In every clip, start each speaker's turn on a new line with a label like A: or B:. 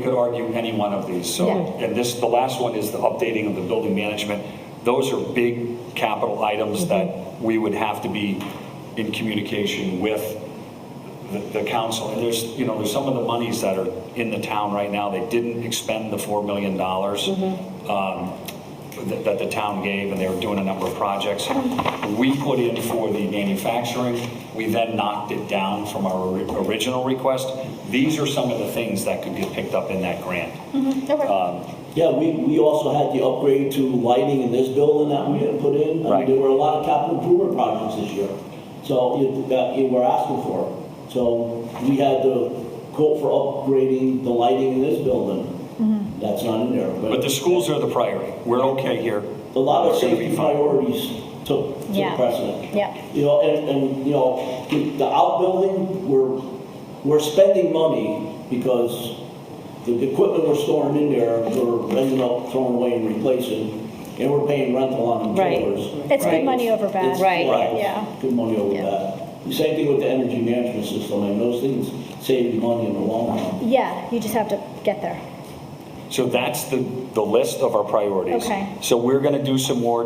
A: You could argue any one of these, so,
B: Yeah.
A: and this, the last one is the updating of the building management. Those are big capital items that we would have to be in communication with the- the council. And there's, you know, there's some of the monies that are in the town right now, they didn't expend the $4 million um, that that the town gave, and they were doing a number of projects. We put in for the manufacturing, we then knocked it down from our ori- original request. These are some of the things that could get picked up in that grant.
C: Uh,
D: Yeah, we, we also had the upgrade to lighting in this building that we didn't put in. I
A: Right.
D: mean, there were a lot of capital improvement projects this year, so you, that you were asking for. So we had the quote for upgrading the lighting in this building. That's not in there,
A: But
D: but
A: the schools are the priority, we're okay here.
D: a lot of
A: We're gonna be
D: safety
A: fine.
D: priorities took,
B: Yeah.
D: took precedent.
B: Yeah.
D: You know, and, and, you know, the the outbuilding, we're, we're spending money because the equipment we're storing in there, we're ending up throwing away and replacing, and we're paying rental on the
C: Right.
D: trailers.
B: It's good
C: Right.
B: money over bad.
D: It's-
C: Right.
B: Yeah.
D: Good money over
B: Yeah.
D: that. The Same thing with the energy management system, and those things save you money in the long run.
B: Yeah, you just have to get there.
A: So that's the, the list of our priorities.
B: Okay.
A: So we're going to do some more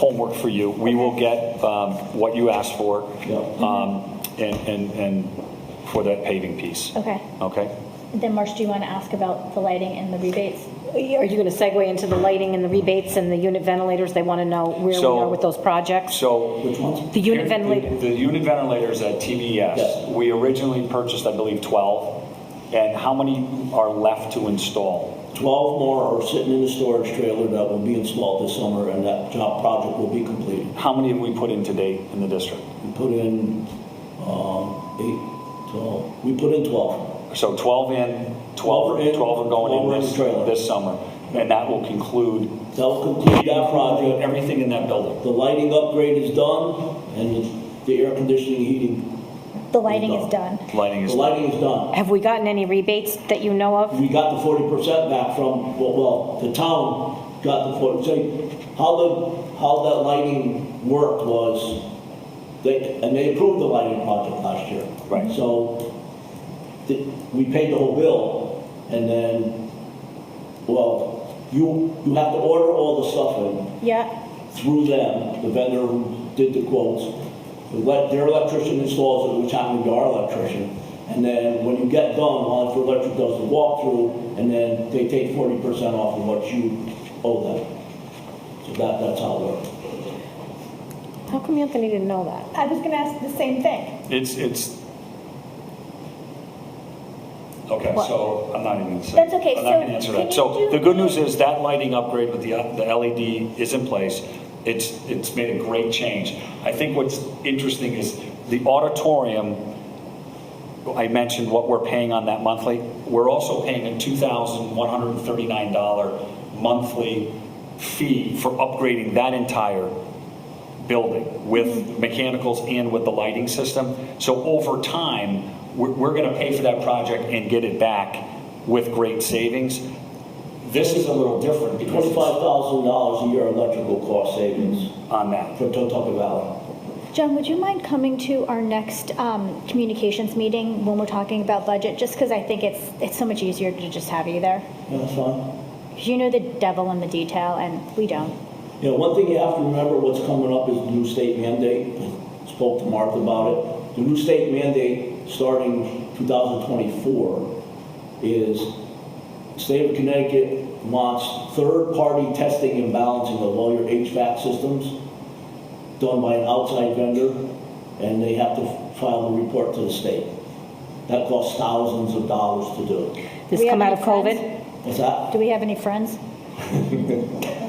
A: homework for you. We will get um, what you asked for
D: Yeah.
A: um, and, and, and for that paving piece.
B: Okay.
A: Okay?
B: Then, Marsh, do you want to ask about the lighting and the rebates?
C: Are you going to segue into the lighting and the rebates and the unit ventilators? They want to know where we
A: So-
C: are with those projects?
A: So.
D: Which ones?
C: The unit ventilator,
A: The unit ventilators at
D: Yes.
A: TBS, we originally purchased, I believe, 12. And how many are left to install?
D: Twelve more are sitting in the storage trailer that will be installed this summer, and that job project will be completed.
A: How many have we put in to date in the district?
D: We put in, um, eight, twelve, we put in twelve.
A: So 12 in, 12,
D: Twelve in,
A: 12 are going in
D: 12 in
A: this,
D: trailer.
A: this summer. And that will conclude
D: That'll complete that project,
A: everything in that building.
D: the lighting upgrade is done, and the air conditioning, heating,
B: The lighting
D: There
B: is
D: you
B: done.
A: Lighting
D: the
A: is,
D: lighting is done.
C: have we gotten any rebates that you know of?
D: We got the forty percent back from, well, well, the town got the forty, so how the, how that lighting worked was, they, and they approved the lighting project last year.
A: Right.
D: So, the- we paid the whole bill, and then, well, you, you have to order all the stuff in,
B: Yeah.
D: through them, the vendor who did the quotes, let their electrician installs it, which happened to be our electrician. And then when you get done, Hollins Electric does the walkthrough, and then they take forty percent off of what you owe them. So that, that's how it works.
C: How come Anthony didn't know that?
B: I was going to ask the same thing.
A: it's, it's, okay, so I'm not even gonna say.
B: That's okay,
A: I'm not
B: so
A: gonna answer
B: can
A: that. So
B: you do-
A: the good news is that lighting upgrade with the, uh, the LED is in place. It's, it's made a great change. I think what's interesting is the auditorium, I mentioned what we're paying on that monthly. We're also paying a $2,139 monthly fee for upgrading that entire building with mechanicals and with the lighting system. So over time, we're, we're going to pay for that project and get it back with great savings. This is a little different because
D: Twenty-five
A: it's
D: thousand dollars a year electrical cost savings
A: on that.
D: for Totucket Valley.
B: John, would you mind coming to our next um, communications meeting when we're talking about budget? Just because I think it's it's so much easier to just have you there.
D: Yeah, That's fine.
B: 'Cause you know the devil in the detail, and we don't.
D: You know, one thing you have to remember, what's coming up is the new state mandate. I Spoke to Martha about it. The new state mandate, starting 2024, is state of Connecticut wants third-party testing and balancing of all your HVAC systems done by an outside vendor, and they have to file a report to the state. That costs thousands of dollars to do.
C: This
B: We
C: come out
B: have
C: of
B: any
C: COVID?
B: friends?
D: What's that?
B: Do we have any friends?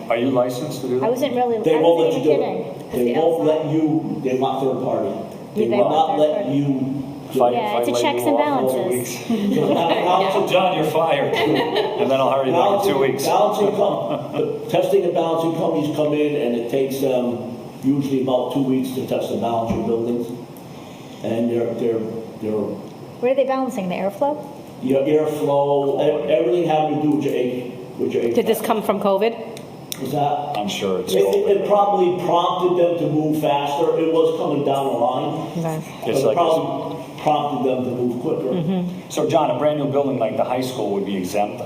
A: Are you licensed to do
B: I
A: that?
B: wasn't really.
D: They
B: I
D: won't
B: wasn't
D: let you
B: even
D: do
B: kidding.
D: it.
B: It's
D: They
B: the
D: won't
B: outside.
D: let you, they want third party. They
B: Yeah, they
D: will
B: want
D: not
B: third
D: let
B: party.
D: you.
A: If I-
B: Yeah,
A: if I
B: it's a
A: lay you
B: checks and
A: off for four
B: balances.
A: weeks, John, you're fired. And then I'll hire you back in two weeks.
D: Balancing com, testing and balancing companies come in and it takes them usually about two weeks to test and balance your buildings. And they're, they're, they're
B: What are they balancing? The airflow?
D: your airflow, e- everything having to do with your, A- with your.
C: Did this
D: HVAC.
C: come from COVID?
D: Is that?
A: I'm sure it's
D: It, it
A: COVID.
D: it probably prompted them to move faster. It was coming down the line.
C: Okay.
A: It's like-
D: but it probably prompted them to move quicker.
A: So John, a brand new building like the high school would be exempt